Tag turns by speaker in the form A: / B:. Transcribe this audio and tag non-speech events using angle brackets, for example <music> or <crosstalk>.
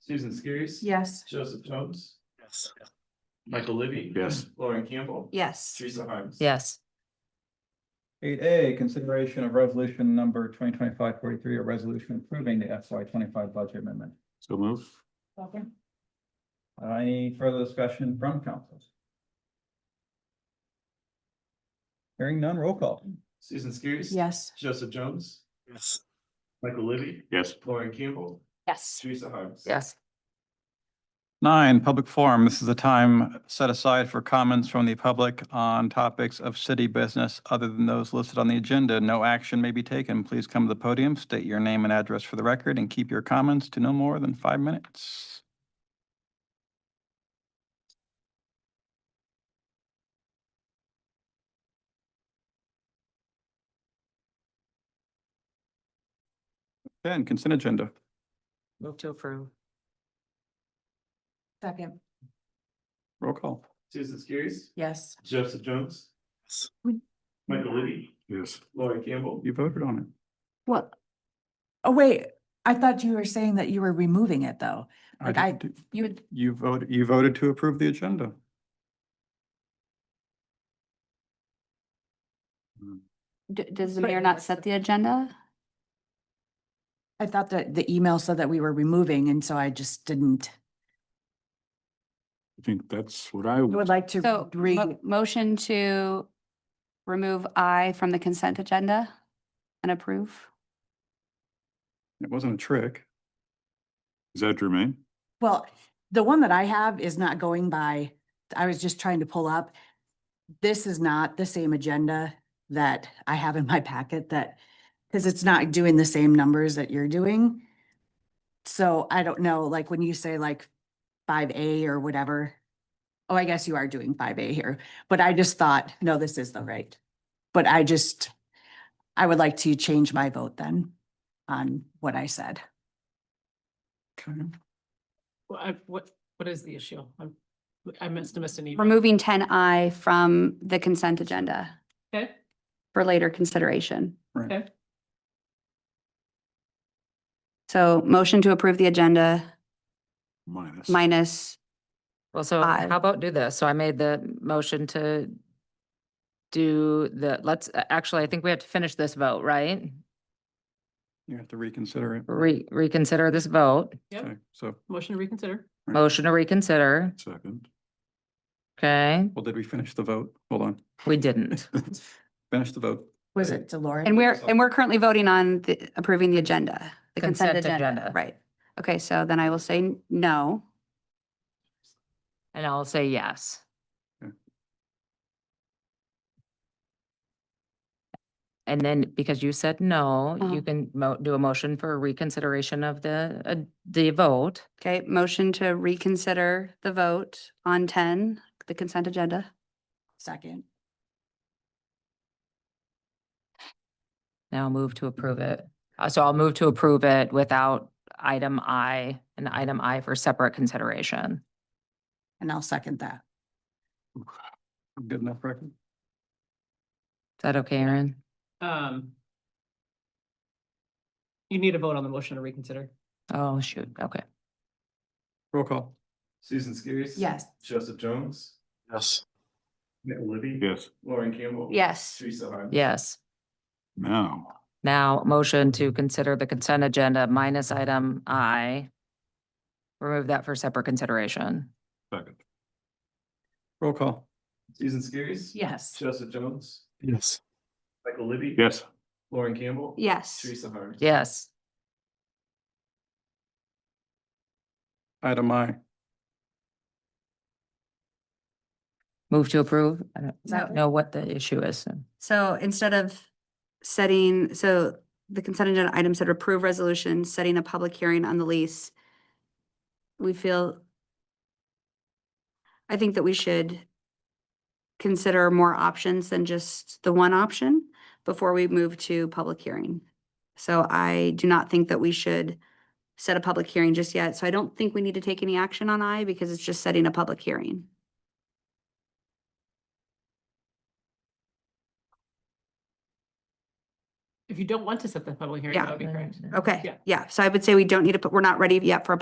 A: Susan Skiris.
B: Yes.
A: Joseph Jones,
C: Yes.
A: Michael Libby.
D: Yes.
A: Lauren Campbell.
B: Yes.
A: Teresa Harms.
E: yes,
F: Eight A, consideration of resolution number 2025-43, a resolution approving the FY twenty-five budget amendment.
D: So move.
F: Uh, Any further discussion from council? Hearing none, roll call.
A: Susan Skiris.
B: Yes.
A: Joseph Jones,
C: Yes.
A: Michael Libby,
D: Yes.
A: Lauren Campbell,
B: Yes.
A: Teresa Harms.
E: yes,
F: Nine, public forum. This is a time set aside for comments from the public on topics of city business other than those listed on the agenda. No action may be taken. Please come to the podium, state your name and address for the record, and keep your comments to no more than five minutes. Ten, consent agenda.
E: move to approve,
B: Second.
F: Roll call.
A: Susan Skiris.
B: Yes.
A: Joseph Jones.
C: Yes.
A: Michael Libby,
D: Yes.
A: Lauren Campbell.
F: You voted on it.
B: What? Oh, wait, I thought you were saying that you were removing it, though. Like, I-
F: didn't do-
B: You would,
F: You voted, you voted to approve the agenda.
G: D- Does the
B: But
G: mayor
B: it
G: not
B: was the-
G: set the agenda?
B: I thought that the email said that we were removing, and so I just didn't.
D: I think that's what I
B: I would
D: would.
B: like to
G: So,
B: read.
G: mo- motion to remove I from the consent agenda and approve?
F: It wasn't a trick.
D: Is that germane?
B: Well, the one that I have is not going by, I was just trying to pull up. This is not the same agenda that I have in my <laughs> packet that, because it's not doing the same numbers that you're doing. So I don't know, like when you say like five A or whatever. Oh, I guess you are doing five A here, but I just thought, no, this is the right. But I just, I would like to change my vote then on what I said.
F: Okay.
H: Well, I, what, what is the issue? I'm, I missed, I missed an email.
G: Removing ten I from the consent agenda
H: Okay,
G: for later consideration.
F: Right.
H: Okay.
G: So motion to approve the agenda
D: Minus.
G: minus,
E: well, so
G: Aye.
E: how about do this, so I made the motion to. Do the, let's, a- actually, I think we have to finish this vote, right?
F: You have to reconsider it.
E: Re- reconsider this vote,
H: yep,
F: Okay, So,
H: motion to reconsider.
F: Right.
E: motion to reconsider,
D: Second.
E: okay,
F: well, did we finish the vote? Hold on. <laughs>
E: we didn't.
F: Finish the vote.
B: Was it Delora?
G: and we're, and we're currently voting on the, approving the agenda, the consent
E: Consent
G: agenda,
E: agenda.
G: right? Okay, so then I will say n- no.
E: And I'll say yes.
F: Okay.
E: And then because you said no,
G: Uh-huh.
E: you can mo- do a motion for reconsideration of the, uh, the vote.
G: Okay, motion to reconsider the vote on ten, the consent agenda.
B: Second.
E: Now move to approve it. Uh, So I'll move to approve it without item I and item I for separate consideration.
B: And I'll second that.
F: Good enough record?
E: Is that okay, Erin?
H: Um. You need a vote on the motion to reconsider.
E: Oh, shoot, okay.
F: Roll call.
A: Susan Skiris.
B: Yes.
A: Joseph Jones,
C: Yes.
A: Michael Libby.
D: Yes.
A: Lauren Campbell.
G: Yes.
A: Teresa Harms.
E: Yes.
D: Now,
E: Now, motion to consider the consent agenda minus item I. Remove that for separate consideration.
D: second.
F: Roll call.
A: Susan Skiris.
B: Yes.
A: Joseph Jones,
C: Yes.
A: Michael Libby.
D: Yes.
A: Lauren Campbell.
G: Yes.
A: Teresa Harms.
E: Yes,
F: Item I.
E: move to approve. I don't-
B: Is that-
E: know what the issue is. so.
G: So instead of setting, so the consent agenda item said approve resolution, setting a public hearing on the lease. We feel I think that we should consider more options than just the one option before we move to public hearing. So I do not think that we should set a public hearing just yet. So I don't think we need to take any action on I because it's just setting a public hearing.
H: If you don't want to set the public hearing,
G: Yeah.
H: that would be correct.
G: Okay,
H: Yeah.
G: yeah. So I would say we don't need to, put. we're not ready yet for a